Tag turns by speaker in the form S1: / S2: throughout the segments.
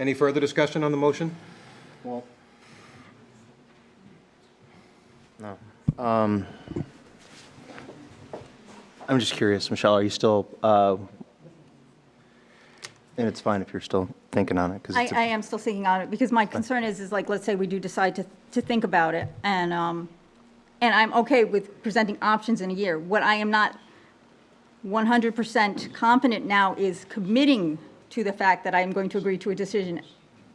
S1: Any further discussion on the motion?
S2: Well,
S3: I'm just curious, Michelle, are you still, uh, and it's fine if you're still thinking on it, because
S4: I,
S3: it's,
S4: I
S3: a-
S4: am still thinking on it, because my concern is, is like, let's say we do decide to, to think about it, and, um, and I'm okay with presenting options in a year. What I am not one hundred percent confident now is committing to the fact that I am going to agree to a decision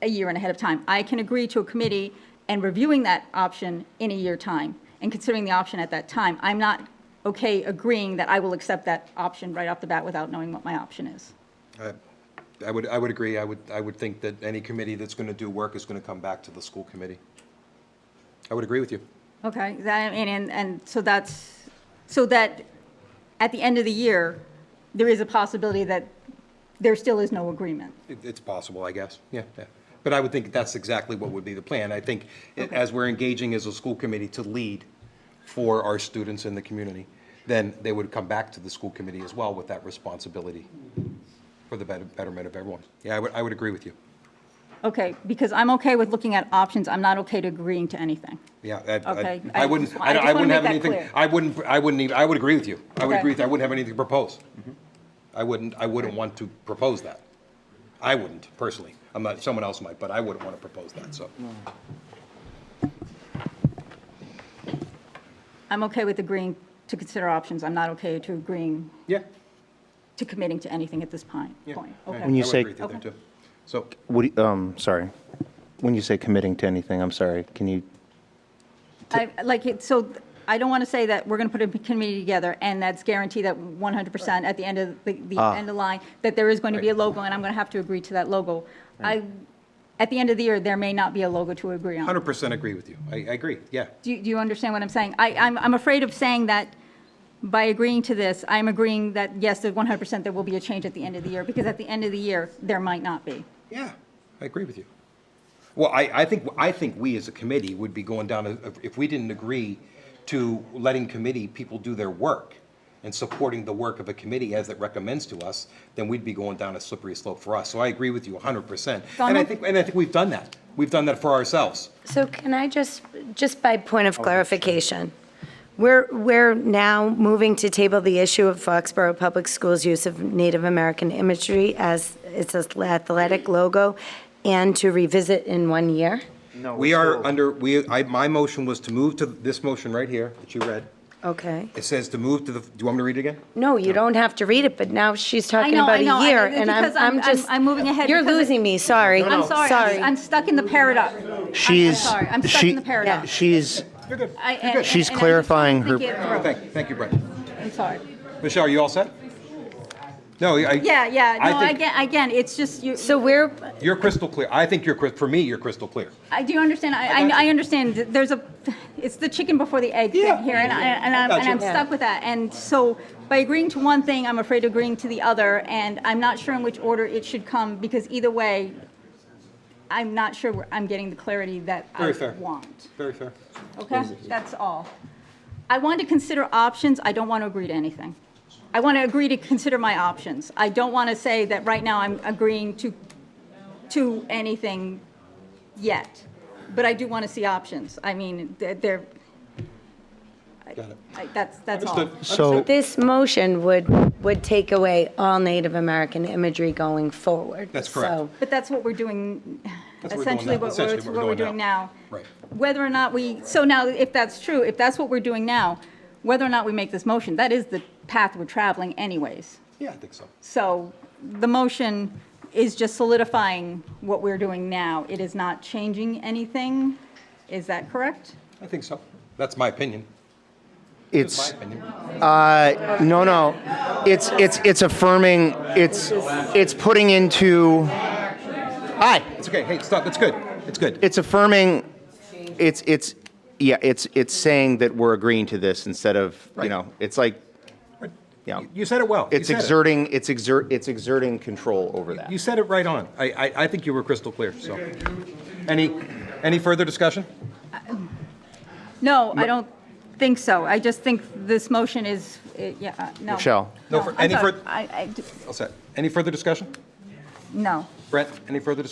S4: a year and ahead of time. I can agree to a committee and reviewing that option in a year time, and considering the option at that time. I'm not okay agreeing that I will accept that option right off the bat without knowing what my option is.
S1: I- I would, I would agree. I would, I would think that any committee that's going to do work is going to come back to the school committee. I would agree with you.
S4: Okay, that, and, and, and so that's, so that at the end of the year, there is a possibility that there still is no agreement.
S1: It- It's possible, I guess, yeah, yeah. But I would think that's exactly what would be the plan. I think i- as we're engaging as a school committee to lead for our students in the community, then they would come back to the school committee as well with that responsibility for the better- betterment of everyone. Yeah, I would, I would agree with you.
S4: Okay, because I'm okay with looking at options, I'm not okay to agreeing to anything.
S1: Yeah, I- I,
S4: Okay,
S1: I
S4: I
S1: wouldn't,
S4: just- I
S1: I don't-
S4: just
S1: I
S4: wanna
S1: wouldn't have
S4: make that
S1: anything,
S4: clear.
S1: I wouldn't, I wouldn't even, I would agree with you. I would
S4: Okay. Mm-hmm.
S1: agree, with you. I wouldn't have anything to propose. I wouldn't, I wouldn't want to propose that. I wouldn't personally. I'm not, someone else might, but I wouldn't want to propose that, so.
S4: I'm okay with agreeing to consider options, I'm not okay to agreeing,
S1: Yeah.
S4: to committing to anything at this point,
S1: yeah.
S4: point,
S1: I-
S4: okay?
S1: I
S3: When you
S1: would
S3: say-
S1: agree with there, too. So,
S3: what, do you- um, sorry. When you say committing to anything, I'm sorry, can you,
S4: I, like, it, so I don't want to say that we're going to put a committee together and that's guaranteed that 100% at the end of, the, the
S3: Ah.
S4: end of line, that there is going to be a logo and I'm going to have to agree to that logo. I, at the end of the year, there may not be a logo to agree on.
S1: hundred percent agree with you. I, I agree, yeah.
S4: Do you, do you understand what I'm saying? I, I'm, I'm afraid of saying that by agreeing to this, I'm agreeing that, yes, that 100% there will be a change at the end of the year, because at the end of the year, there might not be.
S1: Yeah, I agree with you. Well, I, I think, I think we as a committee would be going down, a- if we didn't agree to letting committee people do their work and supporting the work of a committee as it recommends to us, then we'd be going down a slippery slope for us. So I agree with you hundred percent. And I
S4: Donald?
S1: think, and I think we've done that. We've done that for ourselves.
S5: So can I just, just by
S1: Oh,
S5: point of clarification, we're, we're now moving to table the issue of Foxborough Public Schools' use of Native American imagery as its athletic logo and to revisit in one year?
S1: We are under, we, I, my motion was to move to this motion right here that you read.
S5: Okay.
S1: It says to move to the, do you want me to read it again?
S5: No, you don't have to read it, but now she's talking
S4: know, I
S5: about
S4: know,
S5: a
S4: I-
S5: year, and I'm,
S4: because I'm-
S5: I'm just.
S4: I'm- I'm moving ahead
S5: You're
S4: because it-
S5: losing me, sorry.
S4: I'm sorry, I'm- I'm stuck in the paradox.
S3: she's.
S4: I'm sorry, I'm stuck
S3: she-
S4: in the paradox.
S3: She's,
S4: I- and- and-
S3: She's
S4: and I just
S3: clarifying her-
S4: think it
S1: Oh,
S4: through.
S1: Thank, thank you, Brendan.
S4: I'm sorry.
S1: Michelle, are you all set? No, I.
S4: Yeah, yeah, no,
S1: I think
S4: again, again, it's just, you,
S5: So we're,
S1: You're crystal clear. I think you're, cri- for me, you're crystal clear.
S4: I do understand, I,
S1: got
S4: I- I
S1: you.
S4: understand, th- there's a, it's the chicken before the egg
S1: Yeah.
S4: thing here, and I, and
S1: I
S4: I'm,
S1: got
S4: and
S1: you.
S4: I'm stuck with that, and so, by agreeing to one thing, I'm afraid of agreeing to the other, and I'm not sure in which order it should come, because either way, I'm not sure where I'm getting the clarity that I
S1: Very fair.
S4: want,
S1: Very fair.
S4: okay? That's all. I want to consider options, I don't want to agree to anything. I want to agree to consider my options. I don't want to say that right now I'm agreeing to, to anything yet, but I do want to see options. I mean, they're- they're,
S1: Got it.
S4: I- that's, that's all.
S1: Understood.
S3: so,
S5: this motion would, would take away all Native American imagery going forward.
S1: That's correct.
S5: So-
S4: But that's what we're doing,
S1: That's what we're doing
S4: essentially
S1: now.
S4: what we're,
S1: Essentially
S4: what we're doing now.
S1: Right.
S4: Whether or not we, so now, if that's true, if that's what we're doing now, whether or not we make this motion, that is the path we're traveling anyways.
S1: Yeah, I think so.
S4: So the motion is just solidifying what we're doing now. It is not changing anything. Is that correct?
S1: I think so. That's my opinion.
S3: it's,
S1: My opinion.
S3: uh, no, no, it's, it's, it's affirming, it's, it's putting into, hi.
S1: It's okay. Hey, stop. It's good. It's good.
S3: it's affirming it's it's yeah it's it's saying that we're agreeing to this instead of
S1: Right.
S3: you know it's like yeah
S1: You said it well. You
S3: it's
S1: said it.
S3: exerting it's exert it's exerting control over that
S1: You said it right on. I, I, I think you were crystal clear, so. Any, any further discussion?
S4: No, I don't think so. I just think this motion is, eh, yeah, uh, no.
S3: Michelle.
S1: No, for-
S4: I'm
S1: any
S4: sorry.
S1: fur-
S4: I, I d-
S1: All set. Any further discussion?
S4: no.
S1: Brent, any further discussion?